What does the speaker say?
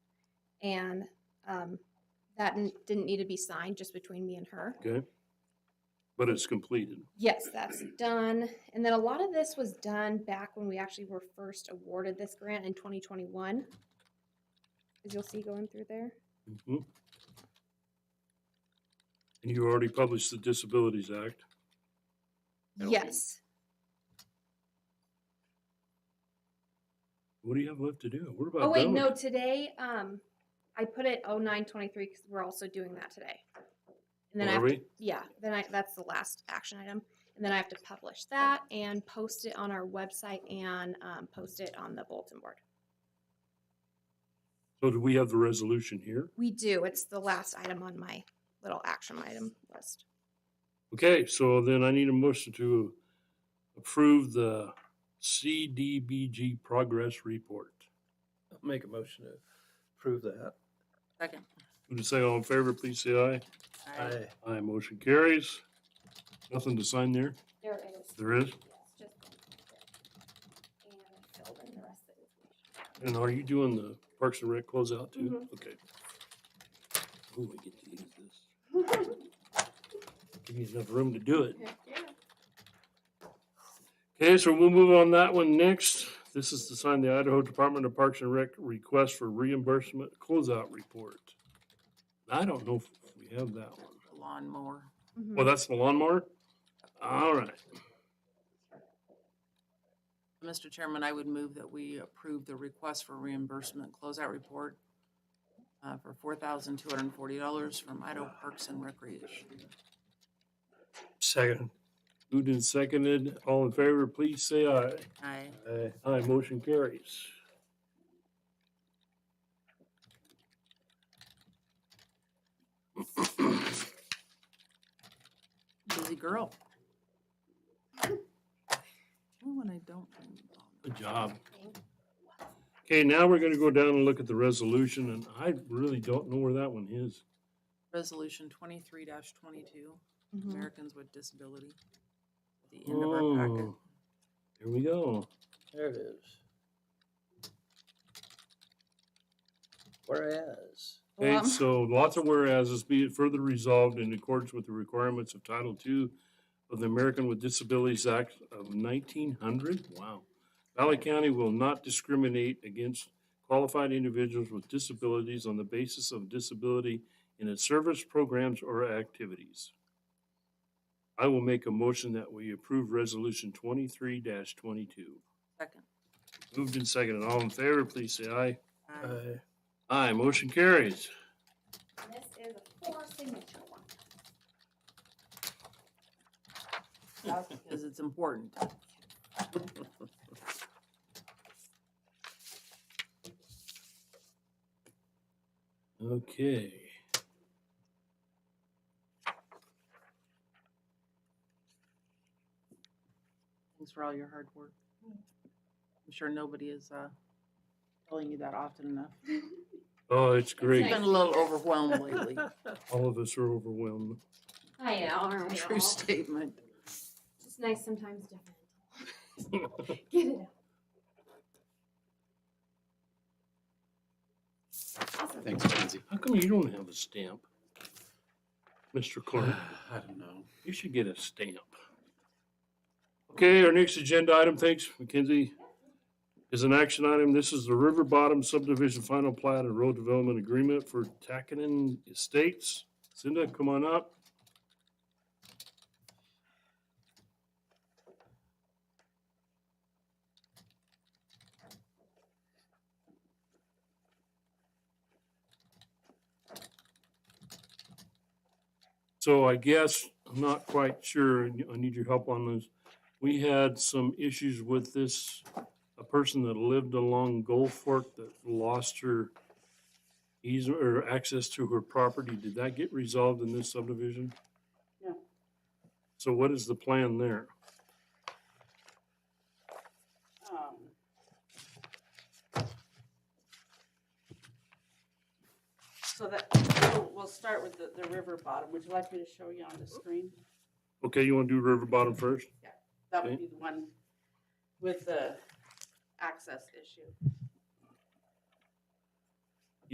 And um, that n- didn't need to be signed, just between me and her. Okay. But it's completed. Yes, that's done. And then a lot of this was done back when we actually were first awarded this grant in 2021. As you'll see going through there. Mhm. And you already published the Disabilities Act. That'll be- Yes. What do you have left to do? What about Oh, wait, those? no, today, um, I put it 0923 because we're also doing that today. And then I Are have we? Yeah, then I, that's the last action item. And then I have to publish that and post it on our website and um, post it on the bulletin board. So do we have the resolution here? We do, it's the last item on my little action item list. Okay, so then I need a motion to approve the CDBG progress report. Make a motion to approve that. Second. Would you say all in favor, please say aye. Aye. Aye, motion carries. Nothing to sign there? There it is. There is? And are you doing the Parks and Rec closeout too? Mm-hmm. Okay. Ooh, I get to use this. Give me enough room to do it. Okay, so we'll move on that one next. This is to sign the Idaho Department of Parks and Rec request for reimbursement closeout report. I don't know if we have that one. Lawnmower. Mm-hmm. Well, that's the lawnmower? All right. Mr. Chairman, I would move that we approve the request for reimbursement closeout report uh, for four thousand two hundred and forty dollars from Idaho Parks and Recreation. Second. Moved and seconded. All in favor, please say aye. Aye. Aye. Aye, motion carries. Busy girl. Ooh, When I don't. turn it on. Good job. Okay, now we're gonna go down and look at the resolution, and I really don't know where that one is. Resolution twenty-three twenty-two, Mhm. Americans with Disability. At The end of our packet. Oh, Here we go. There it is. Whereas, Okay, Um. Well, so lots of whereases, be it further resolved in accordance with the requirements of Title II of the American with Disabilities Act of nineteen hundred, wow. Valley County will not discriminate against qualified individuals with disabilities on the basis of disability in its service programs or activities. I will make a motion that we approve Resolution twenty-three twenty-two. Second. Moved and seconded, all in favor, please say aye. Aye. aye. Aye, motion carries. This is a four signature one. That's Because it's important. Okay. Thanks for all your hard work. I'm sure nobody is uh, telling you that often enough. Oh, it's It's great. been a little overwhelmed lately. All of us are overwhelmed. I know, aren't we all? True statement. It's nice sometimes to get it out. Awesome. Thanks, Lindsay. How come you don't have a stamp? Mr. Clerk, I don't know. you should get a stamp. Okay, our next agenda item, thanks Mackenzie, is an action item. This is the River Bottom Subdivision Final Plat and Road Development Agreement for Tackinon Estates. Cinda, come on up. So I guess, I'm not quite sure, and I need your help on this. We had some issues with this, a person that lived along Gold Fork that lost her easement or access to her property. Did that get resolved in this subdivision? No. So what is the plan there? um, So that, we'll- we'll start with the, the river bottom. Would you like me to show you on the screen? Okay, you want to do River Bottom first? That would Okay. be the one with the access issue.